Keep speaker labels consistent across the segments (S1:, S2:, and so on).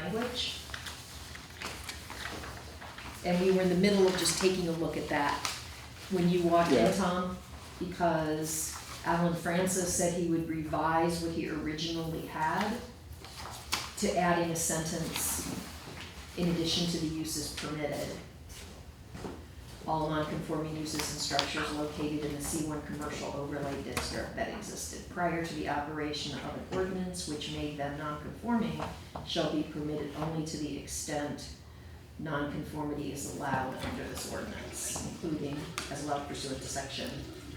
S1: language. And we were in the middle of just taking a look at that when you walked in,
S2: Yeah.
S1: Tom, because Alan Francis said he would revise what he originally had to add in a sentence, in addition to the uses permitted. All non-conforming uses and structures located in the C one commercial overlay district that existed prior to the operation of an ordinance which made them non-conforming shall be permitted only to the extent nonconformity is allowed under this ordinance, including as allowed pursuant to section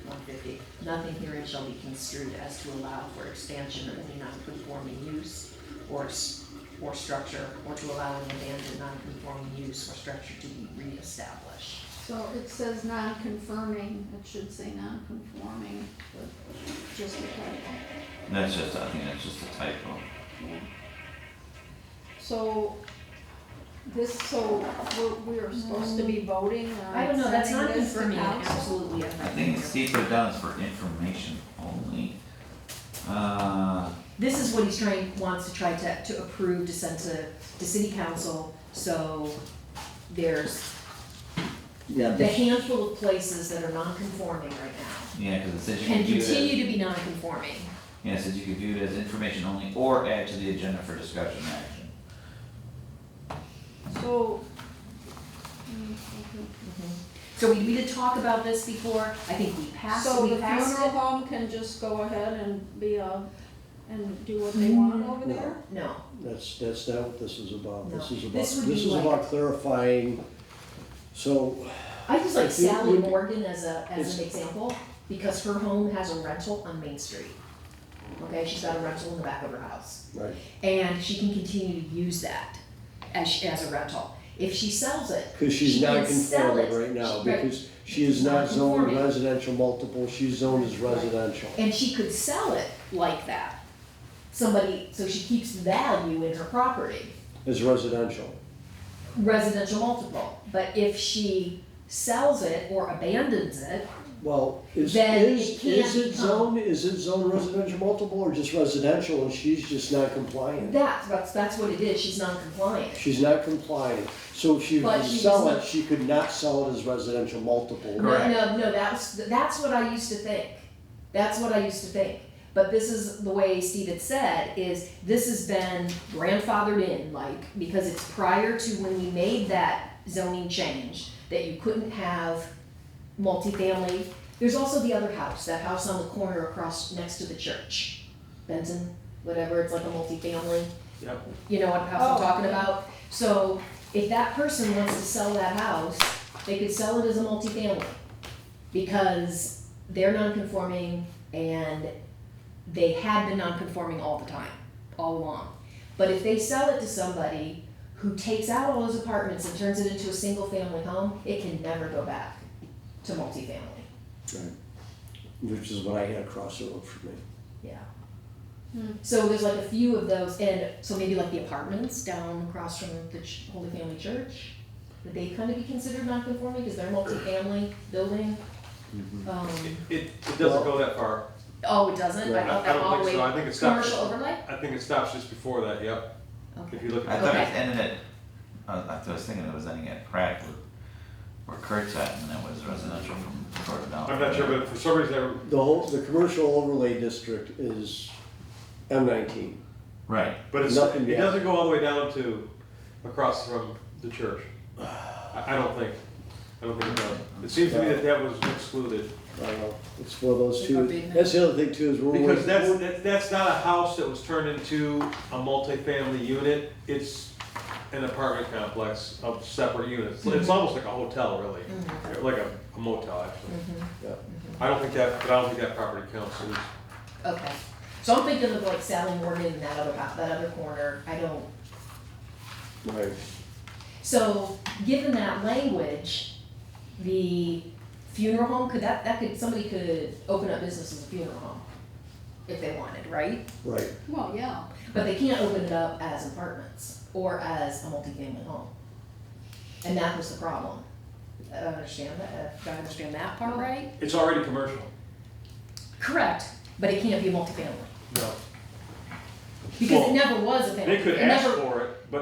S1: one fifty. Nothing herein shall be construed as to allow for expansion of any nonconforming use or, s- or structure, or to allow an abandoned nonconforming use or structure to be reestablished.
S3: So it says non-confirming, it should say non-conforming, but just a typo.
S4: That's just, I think that's just a typo.
S3: yeah. So this, so we're, we are supposed to be voting on.
S1: Mm. I don't know, that's not
S3: sending this to
S1: confirming it
S3: council?
S1: absolutely.
S4: I think it's deeper down is for information only. Uh,
S1: This is what he's trying, wants to try to, to approve to send to, to city council, so there's
S2: Yeah,
S1: the
S2: this-
S1: handful of places that are non-conforming right now
S4: yeah, cause it says you
S1: can
S4: can view it,
S1: continue to be non-conforming.
S4: yeah, it says you can view it as information only or add to the agenda for discussion and action.
S3: So. mm, okay.
S1: So we, we did talk about this before, I think we passed,
S3: So
S1: we
S3: the
S1: passed
S3: funeral
S1: it.
S3: home can just go ahead and be a, and do what they want over
S2: No.
S3: there?
S1: No,
S2: that's, that's not what this is about. This
S1: No. This
S2: is about,
S1: would
S2: this
S1: be
S2: is
S1: like-
S2: about clarifying. So,
S1: I just like
S2: It
S1: Sally
S2: would-
S1: Morgan as a, as an
S2: It's-
S1: example, because her home has a rental on Main Street. Okay, she's got a rental in the back of her house.
S2: right,
S1: and she can continue to use that as, she- as a rental. If she sells it,
S2: because she's
S1: She
S2: not
S1: can sell
S2: conforming
S1: it.
S2: right now,
S1: She- right.
S2: because she is not
S1: Not
S2: zoned
S1: conforming.
S2: residential multiple, she's zoned as
S1: Right.
S2: residential.
S1: and she could sell it like that, somebody, so she keeps value in her property,
S2: As residential,
S1: residential multiple. But if she sells it or abandons it,
S2: well, is,
S1: Then it
S2: is,
S1: can't
S2: is it
S1: become-
S2: zoned, is it zoned residential multiple or just residential and she's just not compliant?
S1: that's, that's, that's what it is, she's non-compliant.
S2: She's not compliant, so if she
S1: But
S2: could
S1: she's
S2: sell it,
S1: not-
S2: she could not sell it as residential multiple.
S1: No,
S4: Correct.
S1: no, no, that's, that's what I used to think, that's what I used to think. But this is the way Steve had said, is this has been grandfathered in, like, because it's prior to when we made that zoning change, that you couldn't have multifamily. There's also the other house, that house on the corner across, next to the church, Benton, whatever, it's like a multifamily.
S2: Yep.
S1: You know what house I'm
S3: Oh.
S1: talking about? So if that person wants to sell that house, they could sell it as a multifamily because they're non-conforming and they had been non-conforming all the time, all along. But if they sell it to somebody who takes out all those apartments and turns it into a single-family home, it can never go back to multifamily.
S2: Which is what I had across the road from me.
S1: Yeah.
S3: Hmm.
S1: So there's like a few of those, and so maybe like the apartments down across from the Ch- Holy Family Church, would they kind of be considered non-conforming because they're multifamily building?
S5: Mm-hmm.
S1: Um,
S5: It, it doesn't go that far.
S1: oh, it doesn't, I
S2: Right.
S1: thought
S5: I
S1: that
S5: don't
S1: all the
S5: think
S1: way,
S5: so. I think it
S1: commercial
S5: stops,
S1: overlay?
S5: I think it stops just before that, yep. If
S1: Okay,
S5: you look
S4: I
S5: at,
S4: thought it
S1: Okay.
S4: ended at, uh, I thought- I was thinking it was ending at Pratt where, where Kurt's at and that was residential from Jordan down.
S5: I'm not sure, but for some reason,
S2: The whole, the commercial overlay district is M nineteen.
S4: Right,
S5: I- but it's,
S2: Nothing
S5: it
S2: yet.
S5: doesn't go all the way down to, across from the church. I, I don't think, I don't think it does. It seems to me that that was excluded.
S2: I don't know, Uh, it's one of those
S1: Like
S2: two,
S1: a big
S2: that's the other thing too, is we're. waiting-
S5: Because that's, that- that's not a house that was turned into a multifamily unit. It's an apartment complex of separate units.
S1: Mm-hmm.
S5: It's almost like a hotel, really, like a a motel, actually.
S1: Mm-hmm.
S2: Yeah.
S5: I don't think that, but I don't think that property counts as
S1: okay. So I'm thinking of like Sally Morgan and that other, hou- that other corner, I don't,
S2: Right,
S1: So, given that language, the funeral home, could that, that could, somebody could open up business as a funeral home if they wanted, right?
S2: right,
S3: Well, yeah.
S1: But they can't open it up as apartments or as a multifamily home. And that was the problem. I don't understand that, uh, do I understand that part right?
S5: It's already commercial.
S1: Correct, but it can't be multifamily,
S5: No.
S1: because
S5: Well,
S1: it never was a family,
S5: They could
S1: it
S5: ask
S1: never,
S5: for it.